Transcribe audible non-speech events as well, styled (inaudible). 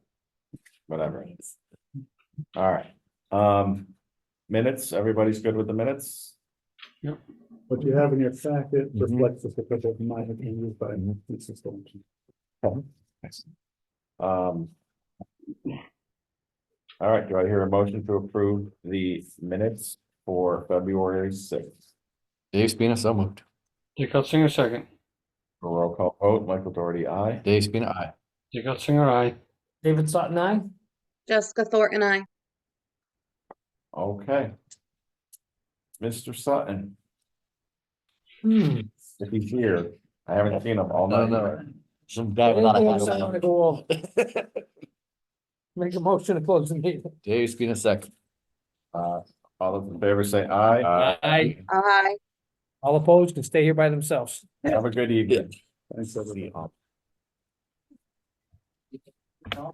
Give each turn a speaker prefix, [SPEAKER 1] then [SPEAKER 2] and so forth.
[SPEAKER 1] whatever. All right, um, minutes, everybody's good with the minutes?
[SPEAKER 2] What you have in your packet
[SPEAKER 1] Mhm.
[SPEAKER 2] reflects the proposal in my opinion by
[SPEAKER 1] Mm-hmm.
[SPEAKER 2] Mrs. Thornton.
[SPEAKER 1] Um. All right, do I hear a motion to approve the minutes for February sixth?
[SPEAKER 3] Dave Spina, so moved.
[SPEAKER 4] Dick Singer second.
[SPEAKER 1] Roll call vote, Michael Doherty, aye.
[SPEAKER 3] Dave Spina, aye.
[SPEAKER 4] Dick Singer, aye.
[SPEAKER 5] David Sutton, I.
[SPEAKER 6] Jessica Thornton, I.
[SPEAKER 1] Okay. Mr. Sutton, if he's here, I haven't seen him all
[SPEAKER 3] No,
[SPEAKER 1] night.
[SPEAKER 3] no. Some guy without a hat over there.
[SPEAKER 5] (laughs) Make a motion to close the meeting.
[SPEAKER 3] Dave Spina, second.
[SPEAKER 1] Uh, all those in favor say aye.
[SPEAKER 5] Aye.
[SPEAKER 6] Aye.
[SPEAKER 5] All opposed can stay here by themselves.
[SPEAKER 1] Have a good evening.
[SPEAKER 2] Thanks, everybody.
[SPEAKER 1] See you all.